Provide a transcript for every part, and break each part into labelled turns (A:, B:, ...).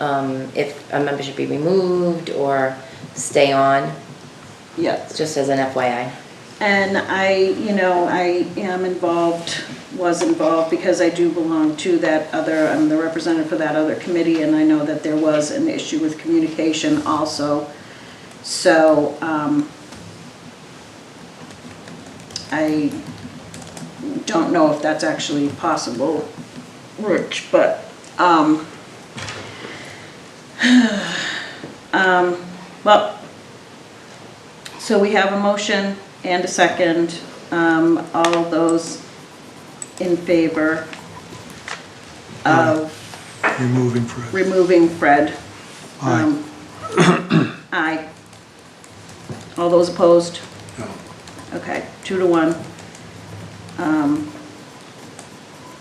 A: um, if a member should be removed or stay on,
B: Yes.
A: just as an FYI.
B: And I, you know, I am involved, was involved, because I do belong to that other, I'm the representative for that other committee, and I know that there was an issue with communication also. So, um, I don't know if that's actually possible, Rich, but, um, um, well, so we have a motion and a second. Um, All those in favor of
C: removing Fred.
B: removing Fred?
C: Aye.
B: Um, Aye. All those opposed?
C: No.
B: Okay, two to one. Um,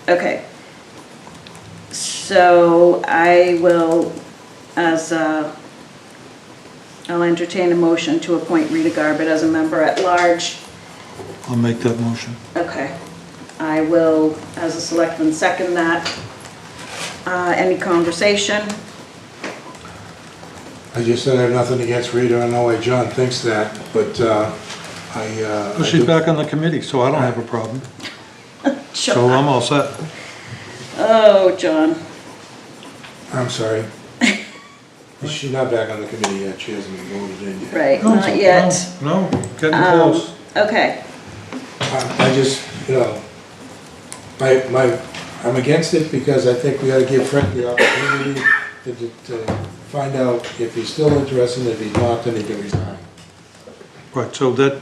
B: Okay. So I will, as, uh, I'll entertain a motion to appoint Rita Garbutt as a member at large.
C: I'll make that motion.
B: Okay. I will, as a selectman, second that. Uh, Any conversation?
D: I just said I have nothing against Rita, I know why John thinks that, but uh, I... uh,
C: Well,
D: I
C: she's
D: do-
C: back on the committee, so I don't have a problem. So I'm all set.
B: Oh, John.
D: I'm sorry. She's not back on the committee yet, she hasn't been voted in yet.
B: Right, not yet.
C: No, no, getting
B: Um,
C: close.
B: Okay,
D: Um, I I just, you know, my, my, I'm against it because I think we ought to give Frank the opportunity to, to- to find out if he's still interested, if he's not, then he can resign.
C: Right, so that,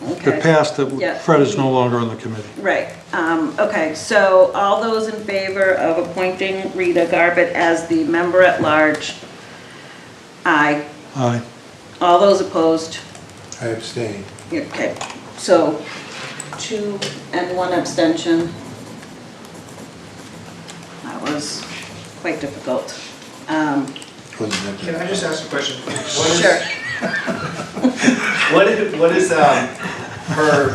C: the
B: okay.
C: past
B: Yeah.
C: that Fred is no longer on the committee.
B: Right, um, okay, so all those in favor of appointing Rita Garbutt as the member at large? Aye.
C: Aye.
B: All those opposed?
D: I abstain.
B: Okay, so two and one abstention. That was quite difficult. Um,
D: Wasn't that-
E: Can I just ask a question? What is-
B: Sure.
E: What is, what is, um, her,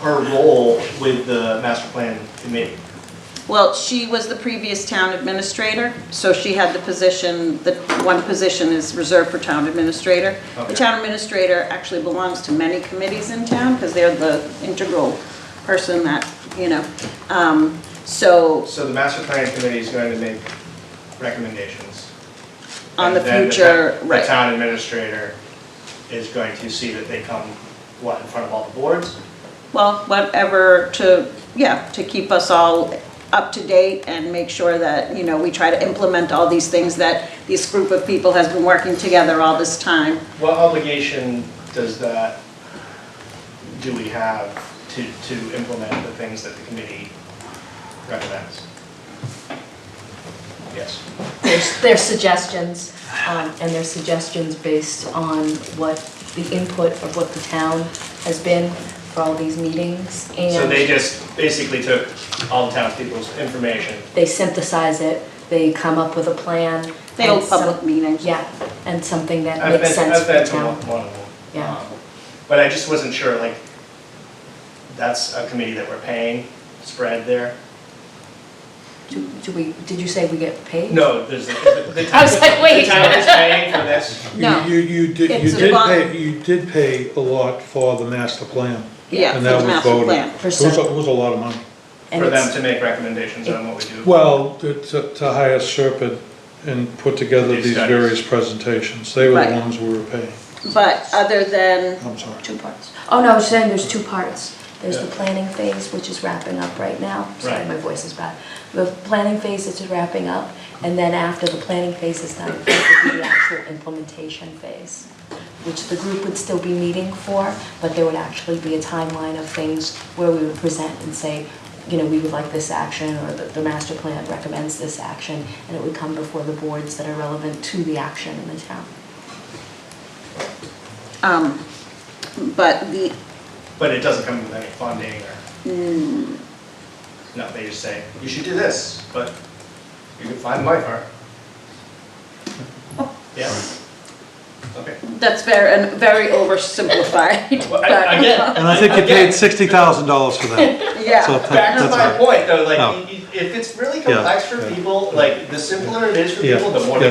E: her role with the master plan committee?
B: Well, she was the previous town administrator, so she had the position, the one position is reserved for town administrator. The
E: Okay.
B: town administrator actually belongs to many committees in town because they're the integral person that, you know. um, So
E: So the master plan committee is going to make recommendations.
B: on the
E: and then
B: future,
E: ta- The
B: right,
E: town administrator is going to see that they come, what, in front of all the boards?
B: well, whatever to, yeah, to keep us all up to date and make sure that, you know, we try to implement all these things that this group of people has been working together all this time.
E: What obligation does that, do we have to, to implement the things that the committee recommends? Yes.
F: their their suggestions, um, and their suggestions based on what the input of what the town has been for all these meetings,
E: So they
F: and
E: just basically took all the townspeople's information.
F: they synthesize it, they come up with a plan.
B: They hold
F: and some-
B: public meetings.
F: Yeah, and something that
E: I've
F: makes
E: been,
F: sense
E: I've
F: for the
E: been to
F: town.
E: one one of them.
F: Yeah.
E: Um, But I just wasn't sure, like, that's a committee that we're paying, spread there?
F: Do do we, did you say we get paid?
E: No, there's, the- the the
F: I
E: town,
F: was like,
E: the
F: wait.
E: town is paying for this.
F: No.
C: You, you you did,
B: It's
C: you
B: a
C: did
B: bond.
C: pay, you did pay a lot for the master plan.
B: Yeah,
C: And
B: for
C: that
B: the
C: was
B: master
C: voted.
B: plan.
C: It was, a- it was a lot of money.
F: And
E: For them
F: it's-
E: to make recommendations on what we do.
C: Well, to, to to hire Serpent and put together
E: These
C: these
E: studies.
C: various presentations, they were the
B: Right.
C: ones we were paying.
B: But other than,
C: I'm sorry.
F: Two parts. Oh, no, I was saying there's two parts. There's the planning phase, which is wrapping up right now. Sorry,
E: Right.
F: my voice is bad. The planning phase is wrapping up, and then after the planning phase is done, it would be the actual implementation phase, which the group would still be meeting for, but there would actually be a timeline of things where we would present and say, you know, we would like this action, or the, the master plan recommends this action, and it would come before the boards that are relevant to the action in the town.
B: um, but the,
E: But it doesn't come with any funding or?
F: Hmm.
E: No, they just say, you should do this, but you can find my part. Yeah? Okay.
B: that's very, and very oversimplified.
E: Well, I-
B: but-
E: Again,
C: And I think you paid sixty thousand dollars for that. So
B: Yeah,
C: that-
E: back to
C: that's
E: my
C: all.
E: point though, like,
C: No.
E: y- y- if it's really complex for
C: yeah.
E: people, like, the simpler it is for
C: Yeah,
E: people, the more
C: yeah.